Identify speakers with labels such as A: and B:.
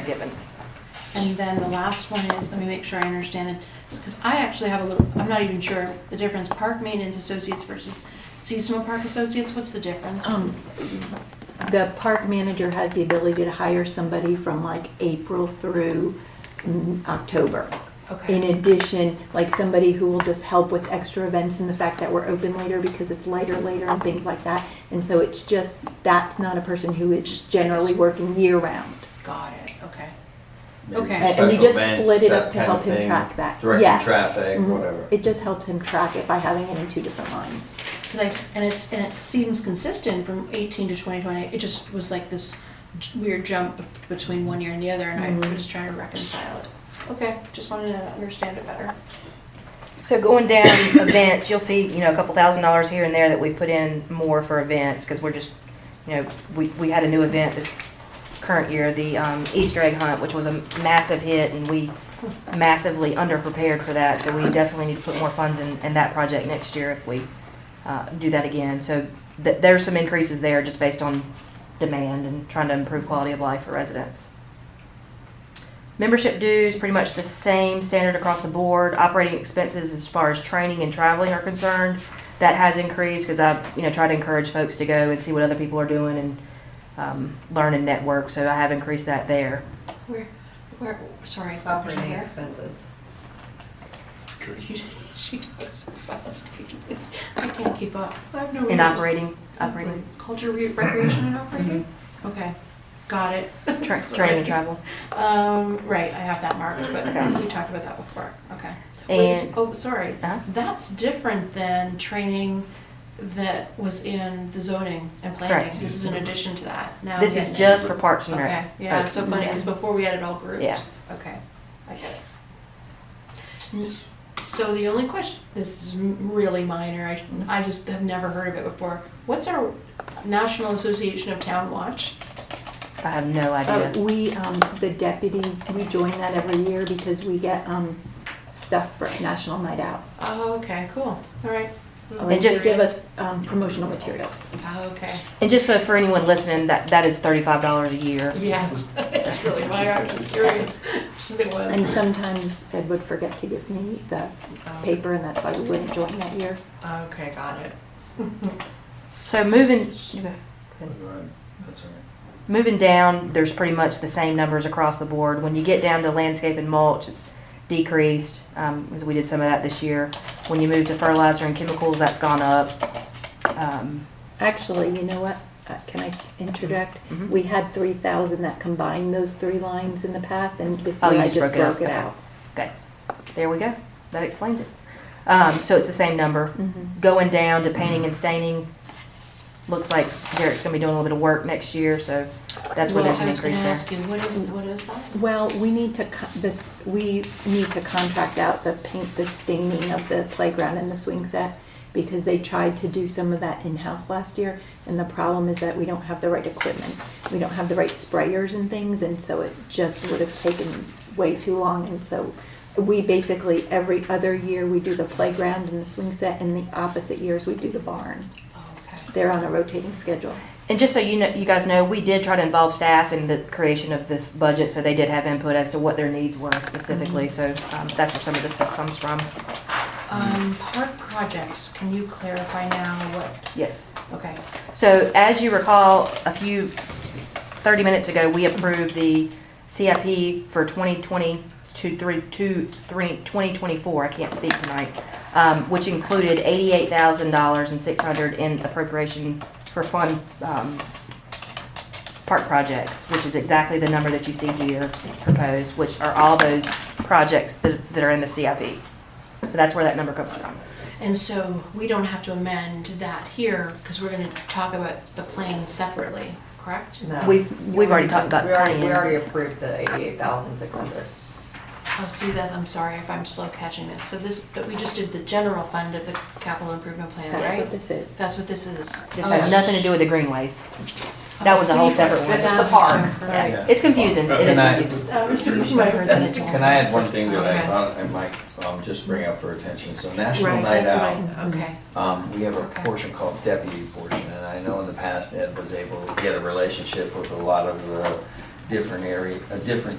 A: given. And then the last one is, let me make sure I understand it, because I actually have a little, I'm not even sure the difference, park maintenance associates versus seasonal park associates, what's the difference?
B: Um, The park manager has the ability to hire somebody from like April through mm, October. In
A: Okay,
B: addition, like somebody who will just help with extra events and the fact that we're open later because it's lighter later and things like that. And so it's just, that's not a person who is generally working year round.
A: got it, okay.
C: maybe
A: Okay.
B: And and we
C: special
B: just
C: events,
B: split it
C: that
B: up to
C: kind
B: help
C: of
B: him
C: thing,
B: track that.
C: Directing
B: Yes.
C: traffic,
B: Mhm.
C: whatever.
B: It just helps him track it by having it in two different lines.
A: Cause I s and it's, and it seems consistent from eighteen to twenty twenty, it just was like this j- weird jump b- between one year and the other, and I
B: Mhm.
A: was trying to reconcile it. Mm-hmm. Okay, just wanted to understand it better.
D: So going down events, you'll see, you know, a couple thousand dollars here and there that we put in more for events, because we're just, you know, we, we had a new event this current year, the um, Easter egg hunt, which was a massive hit, and we massively underprepared for that, so we definitely need to put more funds in, in that project next year if we uh, do that again. So th- there's some increases there just based on demand and trying to improve quality of life for residents. Membership dues, pretty much the same standard across the board. Operating expenses, as far as training and traveling are concerned, that has increased because I, you know, try to encourage folks to go and see what other people are doing and um, learn and network. So I have increased that there.
A: Where, where, sorry, Bob, was
E: Operating
A: there?
E: expenses.
A: She talks so fast. I can't keep up. I have no.
D: In
A: ears.
D: operating, operating, Mm-hmm.
A: Culture, re- recreation and operating? Okay, got it.
D: tra-
A: Sorry.
D: training and travel.
A: Um, right, I have that marked, but
D: Okay.
A: we talked about that before, okay. Wait,
D: And-
A: Oh, sorry,
D: Uh-huh.
A: that's different than training that was in the zoning and planning.
D: Correct.
A: This is in addition to that. Now I'm
D: This
A: getting
D: is
A: it.
D: just for Parks and
A: Okay,
D: Rec.
A: yeah, it's
D: folks.
A: so funny,
B: Okay.
A: because before we had it all grouped.
D: Yeah.
A: Okay, I get it. N- So the only question, this is m- really minor, I, I just have never heard of it before. What's our National Association of Town Watch?
D: I have
A: Oh.
D: no
B: Uh,
D: idea.
B: We, um, the deputy, we join that every year because we get um, stuff for National Night Out.
A: Oh, okay, cool, all right.
B: They just give
A: Curious.
B: us um, promotional materials.
A: Oh, okay,
D: And just so for anyone listening, that that is thirty-five dollars a year.
A: yes, it's really minor, I'm just curious. It
B: And
A: was.
B: sometimes Ed would forget to give me the paper, and that's why we wouldn't join that year.
A: Um, Okay, got it.
D: So moving.
C: Go ahead. That's all right.
D: Moving down, there's pretty much the same numbers across the board. When you get down to landscape and mulch, it's decreased because we did some of that this year. When you move to fertilizer and chemicals, that's gone up. Um,
B: Actually, you know what? Uh, Can I interject?
D: Mhm.
B: We had 3,000 that combined those three lines in the past, and this
D: Oh,
B: year
D: you
B: I
D: just
B: just
D: broke it out.
B: broke it out.
D: okay, there we go. That explains it. Um, so it's the same number.
B: Mhm.
D: Going down to
A: Mm-hmm.
D: painting and staining, looks like Derek's going to be doing a little bit of work next year, so that's where
B: Well,
D: there's an increase
A: I
D: there.
A: was gonna ask you, what is, what is that?
B: Well, we need to, co- this, we need to contract out the paint, the staining of the playground and the swing set, because they tried to do some of that in-house last year, and the problem is that we don't have the right equipment. We don't have the right sprayers and things, and so it just would have taken way too long, and so we basically, every other year, we do the playground and the swing set, and the opposite years, we do the barn.
A: Oh, Okay.
B: They're on a rotating schedule.
D: And just so you know, you guys know, we did try to involve staff in the creation of this budget, so they did have input as to what their needs were specifically. So um, that's where some of this stuff comes from.
A: Um, park projects, can you clarify now what,
D: Yes.
A: okay.
D: So as you recall, a few, 30 minutes ago, we approved the CIP for 2020 to three- to three- 2024, I can't speak tonight, um, which included $88,000 and 600 in appropriation for fund, um, park projects, which is exactly the number that you see here proposed, which are all those projects that that are in the CIP. So that's where that number comes from.
A: And so we don't have to amend that here, because we're gonna talk about the plan separately, correct?
E: No.
D: We've, we've already talked about
E: We already, we
D: plans.
E: already approved the eighty-eight thousand six hundred.
A: Oh, see that, I'm sorry if I'm slow catching this. So this, but we just did the general fund of the capital improvement plan,
B: That's what
A: right?
B: this is.
A: That's what this is. Oh.
D: This has nothing to do with the greenways. That was a whole separate one.
E: This is the park.
A: Right.
C: Yeah.
D: It's confusing. It is
C: Can I-
D: confusing.
A: Um, you might have heard that it's all-
C: Can I add one thing that
A: Okay.
C: I, I might, um, just bring up for attention? So National
A: Right,
C: Night
A: that's
C: Out,
A: right, okay.
C: um, we have a
A: Okay.
C: portion called deputy portion, and I know in the past Ed was able to get a relationship with a lot of the different area, uh, different